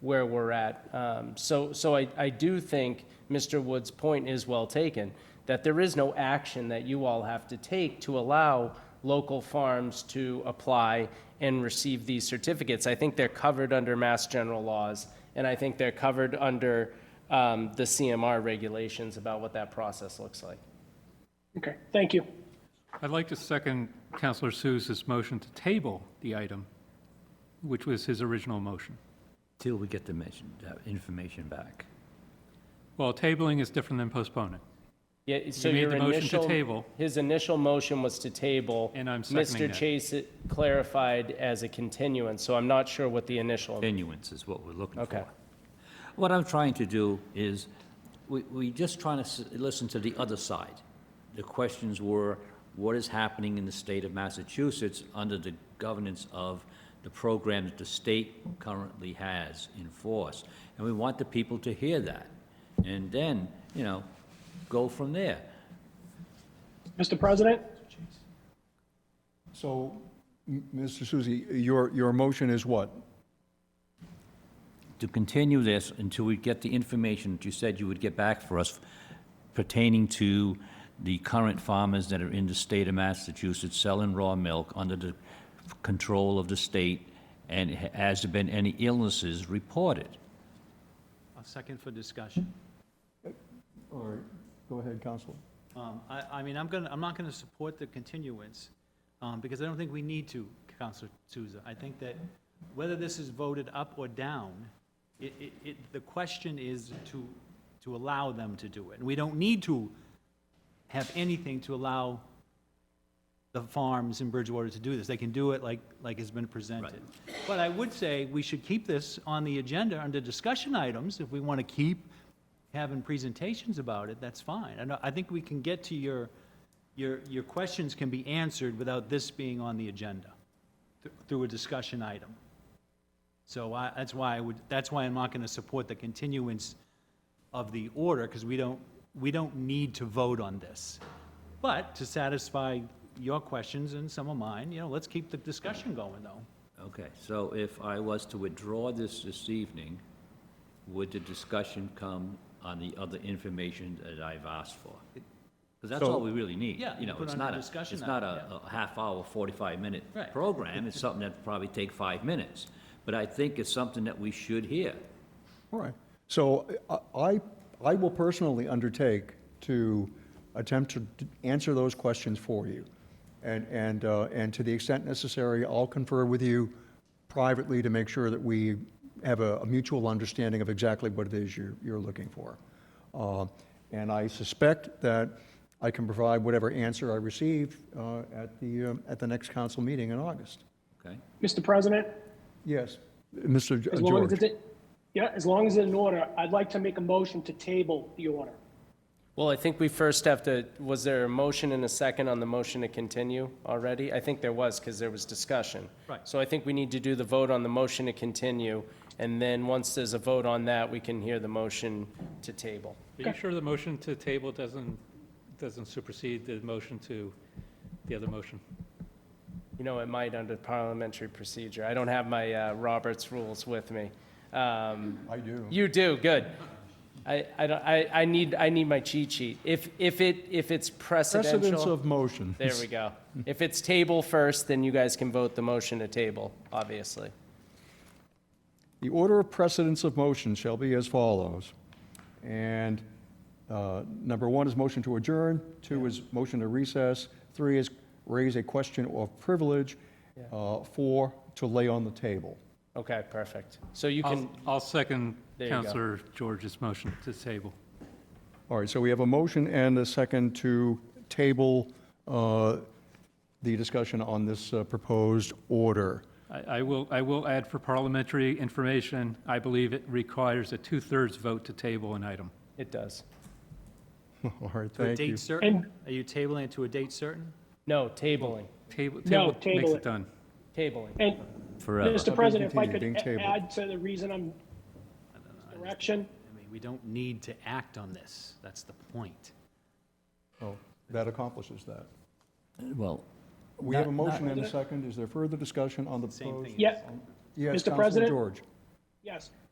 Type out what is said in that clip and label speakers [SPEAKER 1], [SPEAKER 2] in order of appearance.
[SPEAKER 1] where we're at. Um, So, so I, I do think Mr. Wood's point is well taken, that there is no action that you all have to take to allow local farms to apply and receive these certificates. I think they're covered under mass general laws, and I think they're covered under um, the CMR regulations about what that process looks like.
[SPEAKER 2] Okay, thank you.
[SPEAKER 3] I'd like to second Counselor Seuss's motion to table the item, which was his original motion.
[SPEAKER 4] Till we get the mention, uh, information back.
[SPEAKER 3] Well, tabling is different than postponing.
[SPEAKER 1] Yeah, so
[SPEAKER 3] You made
[SPEAKER 1] your
[SPEAKER 3] the motion to
[SPEAKER 1] initial.
[SPEAKER 3] table.
[SPEAKER 1] His initial motion was to table.
[SPEAKER 3] And I'm seconding
[SPEAKER 1] Mr.
[SPEAKER 3] that.
[SPEAKER 1] Chase clarified as a continuance, so I'm not sure what the initial.
[SPEAKER 4] Continuance is what we're looking
[SPEAKER 1] Okay.
[SPEAKER 4] for. What I'm trying to do is, we, we just trying to s- listen to the other side. The questions were, what is happening in the state of Massachusetts under the governance of the program that the state currently has in force? And we want the people to hear that, and then, you know, go from there.
[SPEAKER 2] Mr. President,
[SPEAKER 5] So, M- Mr. Susi, your, your motion is what?
[SPEAKER 4] to continue this until we get the information that you said you would get back for us pertaining to the current farmers that are in the state of Massachusetts selling raw milk under the control of the state, and has there been any illnesses reported?
[SPEAKER 6] A second for discussion.
[SPEAKER 5] All right, go ahead, Counselor.
[SPEAKER 6] Um, I, I mean, I'm gonna, I'm not gonna support the continuance, um, because I don't think we need to, Counselor Souza. I think that whether this is voted up or down, it, it, it, the question is to, to allow them to do it. And we don't need to have anything to allow the farms in Bridgewater to do this. They can do it like, like has been presented. But I would say we should keep this on the agenda under discussion items. If we want to keep having presentations about it, that's fine. I know, I think we can get to your, your, your questions can be answered without this being on the agenda th- through a discussion item. So I, that's why I would, that's why I'm not going to support the continuance of the order, because we don't, we don't need to vote on this. But to satisfy your questions and some of mine, you know, let's keep the discussion going, though.
[SPEAKER 4] Okay, so if I was to withdraw this this evening, would the discussion come on the other information that I've asked for? Because that's all we really need.
[SPEAKER 6] Yeah,
[SPEAKER 4] You know,
[SPEAKER 6] put
[SPEAKER 4] it's
[SPEAKER 6] on a
[SPEAKER 4] not a,
[SPEAKER 6] discussion
[SPEAKER 4] it's not
[SPEAKER 6] item,
[SPEAKER 4] a a half-hour, 45-minute
[SPEAKER 6] Right.
[SPEAKER 4] program. It's something that probably take five minutes. But I think it's something that we should hear.
[SPEAKER 5] All right, so I- I, I will personally undertake to attempt to d- answer those questions for you. And, and, uh, and to the extent necessary, I'll confer with you privately to make sure that we have a a mutual understanding of exactly what it is you're, you're looking for. Uh, And I suspect that I can provide whatever answer I receive uh, at the, um, at the next council meeting in August.
[SPEAKER 4] Okay?
[SPEAKER 2] Mr. President,
[SPEAKER 5] Yes, Mr. G-
[SPEAKER 2] as long as
[SPEAKER 5] Oh, George?
[SPEAKER 2] it's, in- yeah, as long as it's in order, I'd like to make a motion to table the order.
[SPEAKER 1] Well, I think we first have to, was there a motion and a second on the motion to continue already? I think there was, because there was discussion.
[SPEAKER 6] Right.
[SPEAKER 1] So I think we need to do the vote on the motion to continue, and then once there's a vote on that, we can hear the motion to table.
[SPEAKER 3] Are you sure the motion to table doesn't, doesn't supersede the motion to, the other motion?
[SPEAKER 1] You know, it might under parliamentary procedure. I don't have my uh, Roberts rules with me. Um,
[SPEAKER 5] I do.
[SPEAKER 1] You do, good. I, I don't, I, I need, I need my cheat sheet. If, if it, if it's
[SPEAKER 5] Precedence
[SPEAKER 1] precedential,
[SPEAKER 5] of motion.
[SPEAKER 1] there we go. If it's table first, then you guys can vote the motion to table, obviously.
[SPEAKER 5] The order of precedence of motion shall be as follows. And uh, number one is motion to adjourn, two is motion to recess, three is raise a question of privilege, uh, four, to lay on the table.
[SPEAKER 1] Okay, perfect. So you can,
[SPEAKER 3] I'll, I'll second
[SPEAKER 1] There you go.
[SPEAKER 3] Counselor George's motion to table.
[SPEAKER 5] All right, so we have a motion and a second to table uh, the discussion on this uh, proposed order.
[SPEAKER 3] I, I will, I will add for parliamentary information, I believe it requires a two-thirds vote to table an item.
[SPEAKER 1] it does.
[SPEAKER 5] All right,
[SPEAKER 6] To a
[SPEAKER 5] thank you.
[SPEAKER 6] date certain?
[SPEAKER 2] And-
[SPEAKER 6] Are you tabling it to a date certain?
[SPEAKER 1] No, tabling,
[SPEAKER 3] Table, table
[SPEAKER 2] No,
[SPEAKER 3] makes
[SPEAKER 2] table it.
[SPEAKER 3] it done.
[SPEAKER 1] tabling.
[SPEAKER 2] And,
[SPEAKER 4] Forever.
[SPEAKER 2] Mr. President, if I could
[SPEAKER 5] continued, being
[SPEAKER 2] a-
[SPEAKER 5] tabled.
[SPEAKER 2] add to the reason I'm, direction,
[SPEAKER 6] I mean, we don't need to act on this. That's the point.
[SPEAKER 5] Oh, That accomplishes that.
[SPEAKER 4] Well,
[SPEAKER 5] We have a motion and a second. Is there further discussion on the
[SPEAKER 6] Same
[SPEAKER 5] proposed?
[SPEAKER 6] thing.
[SPEAKER 2] yeah,
[SPEAKER 5] Yes,
[SPEAKER 2] Mr.
[SPEAKER 5] Counselor
[SPEAKER 2] President?
[SPEAKER 5] George.
[SPEAKER 2] yes.